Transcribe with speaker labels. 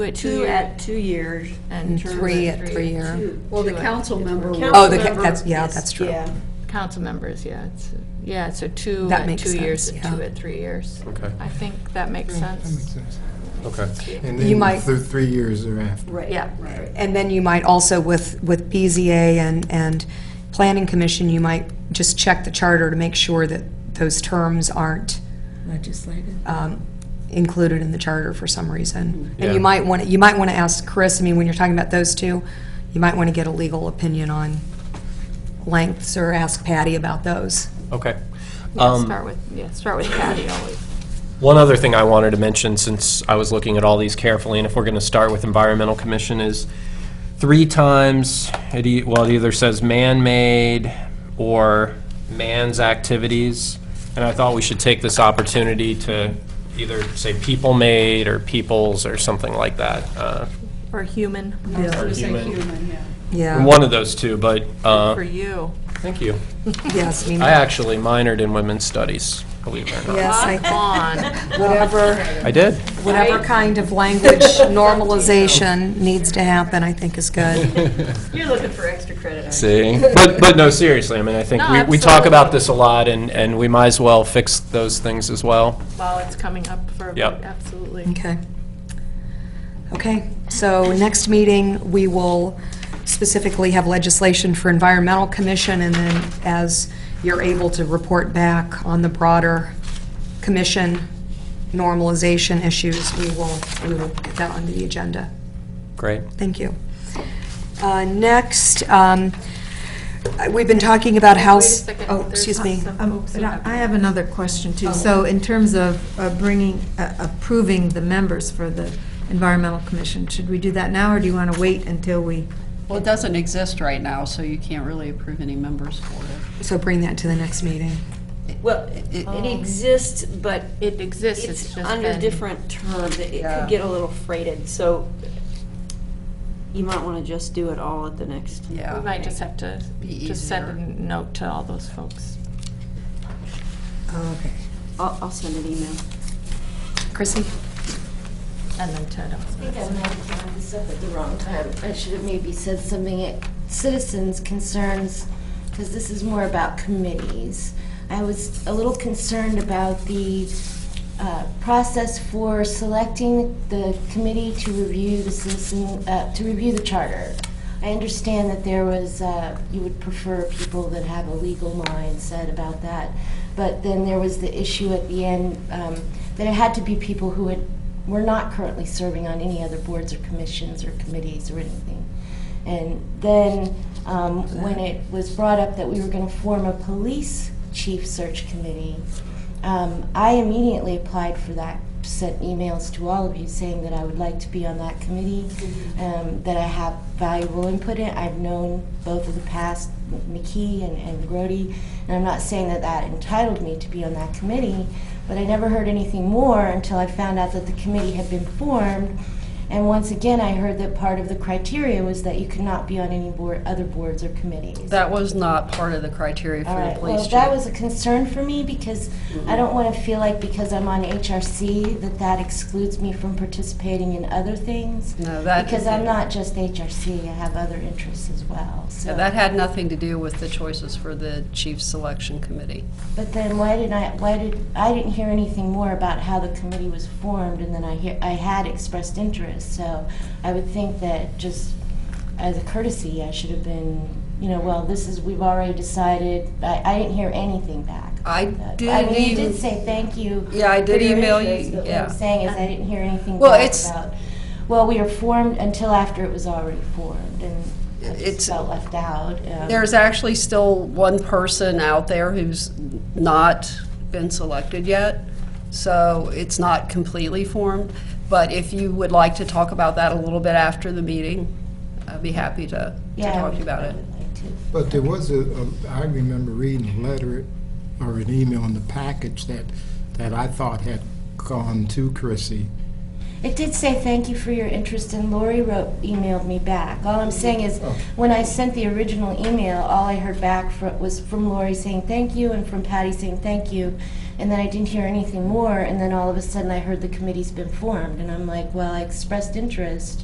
Speaker 1: at
Speaker 2: Two at two years.
Speaker 1: And
Speaker 2: terms
Speaker 3: three at three year.
Speaker 2: Well, the
Speaker 1: Two at-
Speaker 2: council member.
Speaker 4: Council
Speaker 3: Oh, the, ca-
Speaker 4: member
Speaker 3: that's, yeah,
Speaker 4: is-
Speaker 3: that's true.
Speaker 4: Yeah,
Speaker 1: Council members, yeah, it's, yeah, so two
Speaker 3: That
Speaker 1: at
Speaker 3: makes
Speaker 1: two years
Speaker 3: sense,
Speaker 1: and two
Speaker 3: yeah.
Speaker 1: at three years.
Speaker 5: Okay.
Speaker 1: I think that makes
Speaker 6: That makes
Speaker 1: sense.
Speaker 6: sense.
Speaker 5: Okay.
Speaker 6: And
Speaker 3: You
Speaker 6: then
Speaker 3: might-
Speaker 6: through three years or after.
Speaker 4: right.
Speaker 1: Yeah.
Speaker 4: Right.
Speaker 3: And then you might also with, with BZA and, and Planning Commission, you might just check the charter to make sure that those terms aren't
Speaker 7: legislated.
Speaker 3: um, included in the charter for some reason. And
Speaker 5: Yeah.
Speaker 3: you might want, to you might want to ask Chris, I mean, when you're talking about those two, you might want to get a legal opinion on lengths or ask Patty about those.
Speaker 5: Okay.
Speaker 1: Yeah,
Speaker 5: Um,
Speaker 1: Start with, yeah, start with Patty always.
Speaker 5: One other thing I wanted to mention, since I was looking at all these carefully, and if we're going to start with Environmental Commission, is three times, it e- well, it either says man-made or man's activities, and I thought we should take this opportunity to either say people-made or peoples or something like that. uh,
Speaker 1: Or human,
Speaker 5: or
Speaker 2: Say
Speaker 5: human.
Speaker 2: human, yeah.
Speaker 3: Yeah.
Speaker 5: One of those two, but, uh,
Speaker 1: for you.
Speaker 5: thank you.
Speaker 3: Yes, I mean,
Speaker 5: I actually minored in women's studies, believe it or not.
Speaker 3: yes, I-
Speaker 1: On.
Speaker 3: whatever,
Speaker 5: I did.
Speaker 3: whatever kind of language normalization needs to happen, I think is good.
Speaker 4: You're looking for extra credit, aren't
Speaker 5: See, but, but no, seriously, I mean, I think
Speaker 1: No,
Speaker 5: we, we talk about
Speaker 1: absolutely.
Speaker 5: this a lot, and, and we might as well fix those things as well.
Speaker 1: While it's coming up for a
Speaker 5: Yep.
Speaker 1: vote, absolutely.
Speaker 3: Okay. Okay, so next meeting, we will specifically have legislation for Environmental Commission, and then as you're able to report back on the broader commission normalization issues, we will, we will get that onto the agenda.
Speaker 5: Great.
Speaker 3: Thank you. Uh, Next, um, we've been talking about house,
Speaker 1: Wait a second,
Speaker 3: oh,
Speaker 1: there's
Speaker 3: excuse me.
Speaker 1: some
Speaker 7: Um,
Speaker 1: folks who
Speaker 7: but I
Speaker 1: have- Oh.
Speaker 7: I have another question too. So in terms of uh, bringing, uh, approving the members for the Environmental Commission, should we do that now, or do you want to wait until we?
Speaker 2: Well, it doesn't exist right now, so you can't really approve any members for it.
Speaker 3: So bring that to the next meeting.
Speaker 4: Well, it it exists, but
Speaker 1: It exists, it's
Speaker 4: it's
Speaker 1: Um, just
Speaker 4: under
Speaker 1: been-
Speaker 4: different terms. It it
Speaker 2: Yeah.
Speaker 4: could get a little freighted, so you might want to just do it all at the next.
Speaker 1: We
Speaker 2: Yeah.
Speaker 1: might just have to,
Speaker 2: Be
Speaker 1: just send
Speaker 2: easier.
Speaker 1: a note to all those folks. Oh,
Speaker 3: Okay.
Speaker 4: I'll, I'll send an email.
Speaker 3: Chrissy?
Speaker 1: And then Ted also.
Speaker 8: I think I might have brought this up at the wrong time. I should have maybe said something at citizens' concerns, because this is more about committees. I was a little concerned about the uh, process for selecting the committee to review the citizen, uh, to review the charter. I understand that there was, uh, you would prefer people that have a legal mindset about that, but then there was the issue at the end um, that it had to be people who had, were not currently serving on any other boards or commissions or committees or anything. And then um, when it was brought up that we were going to form a police chief search committee, um, I immediately applied for that, sent emails to all of you saying that I would like to be on that committee, um, that I have valuable input in. I've known both of the past, McKee and, and Grody, and I'm not saying that that entitled me to be on that committee, but I never heard anything more until I found out that the committee had been formed. And once again, I heard that part of the criteria was that you could not be on any board, other boards or committees.
Speaker 2: That was not part of the criteria
Speaker 8: All
Speaker 2: for the
Speaker 8: right,
Speaker 2: police
Speaker 8: well,
Speaker 2: chief.
Speaker 8: that was a concern for me because I don't want to feel like because I'm on HRC that that excludes me from participating in other things.
Speaker 2: No, that-
Speaker 8: Because I'm not just HRC, I have other interests as well, so.
Speaker 2: Yeah, That had nothing to do with the choices for the chief selection committee.
Speaker 8: But then why did I, why did, I didn't hear anything more about how the committee was formed, and then I hear, I had expressed interest, so I would think that just as a courtesy, I should have been, you know, well, this is, we've already decided, I, I didn't hear anything back.
Speaker 2: I
Speaker 8: about that.
Speaker 2: did
Speaker 8: I mean, you
Speaker 2: em-
Speaker 8: did say thank you.
Speaker 2: Yeah, I did
Speaker 8: for your
Speaker 2: email you,
Speaker 8: interest, But what
Speaker 2: yeah.
Speaker 8: I'm saying is, I didn't hear anything
Speaker 2: Well,
Speaker 8: back
Speaker 2: it's-
Speaker 8: about, well, we were formed until after it was already formed, and I
Speaker 2: It's-
Speaker 8: just felt left out. um,
Speaker 2: There's actually still one person out there who's not been selected yet, so it's not completely formed. But if you would like to talk about that a little bit after the meeting, I'd be happy to to
Speaker 8: Yeah, I
Speaker 2: talk to
Speaker 8: would-
Speaker 2: you about
Speaker 8: I
Speaker 2: it.
Speaker 8: would like to.
Speaker 6: But there was a, a- I remember reading a letter or an email in the package that, that I thought had gone to Chrissy.
Speaker 8: It did say thank you for your interest, and Lori wrote, emailed me back. All I'm saying is, when I sent the original email, all I heard back fro- was from Lori saying thank you and from Patty saying thank you. And then I didn't hear anything more, and then all of a sudden I heard the committee's been formed, and I'm like, well, I expressed interest,